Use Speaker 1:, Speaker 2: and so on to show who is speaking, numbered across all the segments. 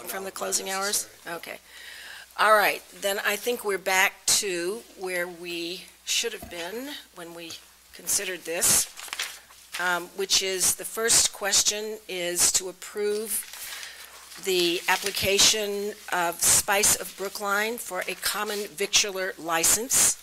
Speaker 1: from the closing hours? Okay. All right, then I think we're back to where we should have been when we considered this, um, which is, the first question is to approve the application of Spice of Brookline for a common victular license.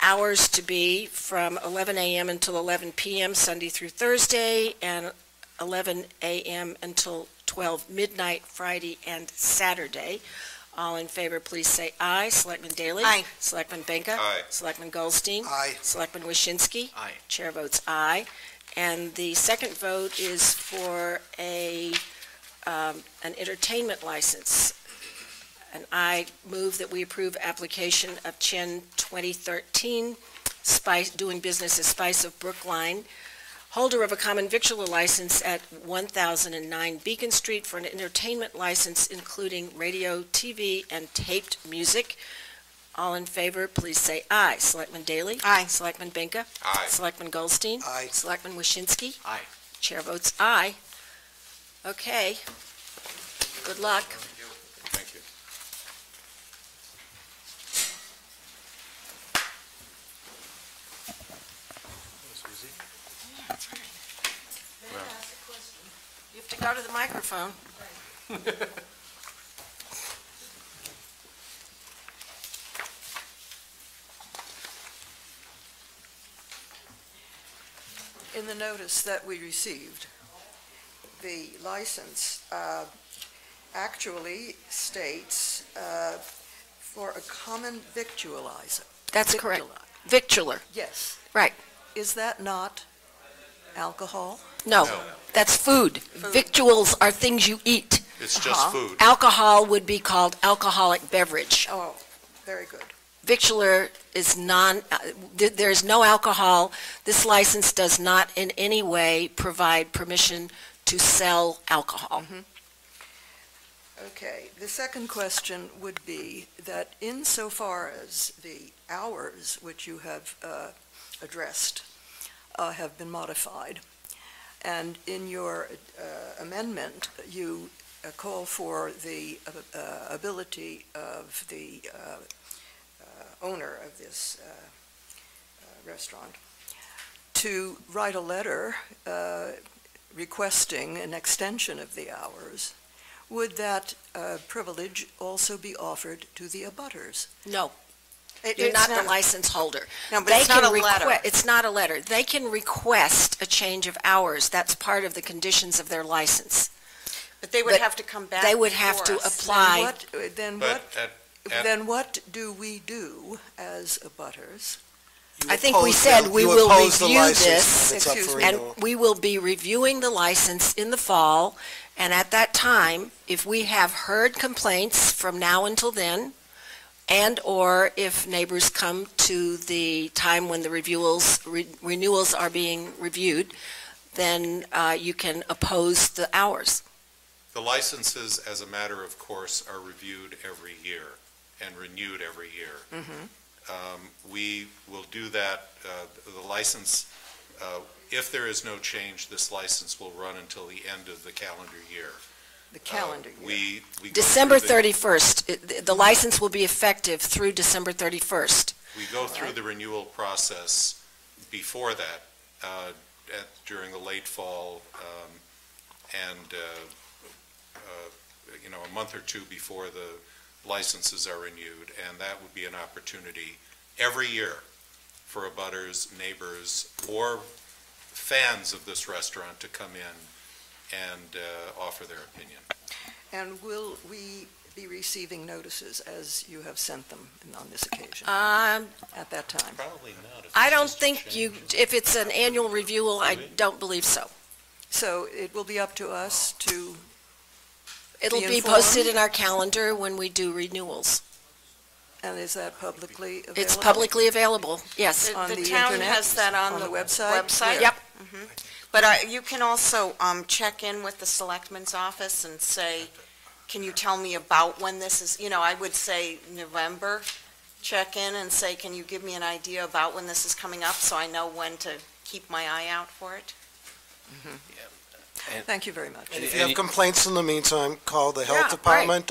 Speaker 1: Hours to be from 11 a.m. until 11 p.m., Sunday through Thursday, and 11 a.m. until 12 midnight, Friday and Saturday. All in favor, please say aye. Selectman Daley?
Speaker 2: Aye.
Speaker 1: Selectman Benka?
Speaker 3: Aye.
Speaker 1: Selectman Goldstein?
Speaker 3: Aye.
Speaker 1: Selectman Waschinsky?
Speaker 3: Aye.
Speaker 1: Chair votes aye. And the second vote is for a, um, an entertainment license. And I move that we approve application of Chen 2013, Spice, doing business as Spice of Brookline, holder of a common victular license at 1009 Beacon Street for an entertainment license including radio, TV, and taped music. All in favor, please say aye. Selectman Daley?
Speaker 2: Aye.
Speaker 1: Selectman Benka?
Speaker 3: Aye.
Speaker 1: Selectman Goldstein?
Speaker 3: Aye.
Speaker 1: Selectman Waschinsky?
Speaker 3: Aye.
Speaker 1: Chair votes aye. Okay. Good luck.
Speaker 3: Thank you.
Speaker 1: You have to go to the microphone.
Speaker 4: in the notice that we received, the license uh, actually states uh, for a common victualizer.
Speaker 1: That's correct.
Speaker 4: Victuali-
Speaker 1: Victular,
Speaker 4: Yes.
Speaker 1: Right.
Speaker 4: Is that not alcohol?
Speaker 1: no,
Speaker 3: No.
Speaker 1: that's food. Victuals are things you eat.
Speaker 3: It's
Speaker 4: Uh-huh.
Speaker 3: just food.
Speaker 1: Alcohol would be called alcoholic beverage.
Speaker 4: Oh, very good.
Speaker 1: Victular is non, uh, th- there is no alcohol. This license does not in any way provide permission to sell alcohol.
Speaker 4: Okay, the second question would be that insofar as the hours which you have uh, addressed uh, have been modified, and in your uh, amendment, you uh, call for the uh, uh, ability of the uh, uh, owner of this uh, uh, restaurant to write a letter uh, requesting an extension of the hours, would that uh, privilege also be offered to the abutters?
Speaker 1: No,
Speaker 4: It-
Speaker 1: you're
Speaker 4: it's
Speaker 1: not the license holder.
Speaker 2: No, but
Speaker 1: They
Speaker 2: it's not a
Speaker 1: can
Speaker 2: letter.
Speaker 1: requ- It's not a letter. They can request a change of hours. That's part of the conditions of their license.
Speaker 2: But they would
Speaker 1: But
Speaker 2: have to come back.
Speaker 1: They would have to
Speaker 2: before us.
Speaker 1: apply.
Speaker 4: What- Then
Speaker 3: But
Speaker 4: what,
Speaker 3: at- at-
Speaker 4: then what do we do as abutters?
Speaker 1: I think we said we will review this,
Speaker 4: it's up for
Speaker 1: and we will be reviewing the license in the fall, and at that time, if we have heard complaints from now until then, and/or if neighbors come to the time when the reviewals, re- renewals are being reviewed, then uh, you can oppose the hours.
Speaker 3: The licenses, as a matter of course, are reviewed every year and renewed every year.
Speaker 1: Mm-hmm.
Speaker 3: Um, We will do that, uh, the license, uh, if there is no change, this license will run until the end of the calendar year.
Speaker 4: The calendar
Speaker 3: Uh,
Speaker 4: year?
Speaker 3: We, we. go
Speaker 1: December
Speaker 3: through the-
Speaker 1: 31st, it- the- the license will be effective through December 31st.
Speaker 3: We go through the renewal process before that, uh, at- during the late fall, um, and, uh, uh, you know, a month or two before the licenses are renewed, and that would be an opportunity every year for abutters, neighbors, or fans of this restaurant to come in and uh, offer their opinion.
Speaker 4: And will we be receiving notices as you have sent them on this occasion,
Speaker 1: Um,
Speaker 4: at that time?
Speaker 3: Probably not.
Speaker 1: I don't think you, if it's an annual review, I don't believe so.
Speaker 4: So it will be up to us to,
Speaker 1: It'll
Speaker 4: Be
Speaker 1: be posted
Speaker 4: informed.
Speaker 1: in our calendar when we do renewals.
Speaker 4: and is that publicly available?
Speaker 1: It's publicly available, yes.
Speaker 4: On
Speaker 2: The the
Speaker 4: the
Speaker 2: town
Speaker 4: internet?
Speaker 2: has that on
Speaker 4: On
Speaker 2: the
Speaker 4: the website?
Speaker 2: website.
Speaker 1: Yep.
Speaker 2: Mhm. But I- you can also um, check in with the selectman's office and say, can you tell me about when this is, you know, I would say November, check in and say, can you give me an idea about when this is coming up so I know when to keep my eye out for it?
Speaker 4: Thank you very much.
Speaker 5: If you have complaints in the meantime, call the
Speaker 1: Yeah,
Speaker 5: health
Speaker 1: right.
Speaker 5: department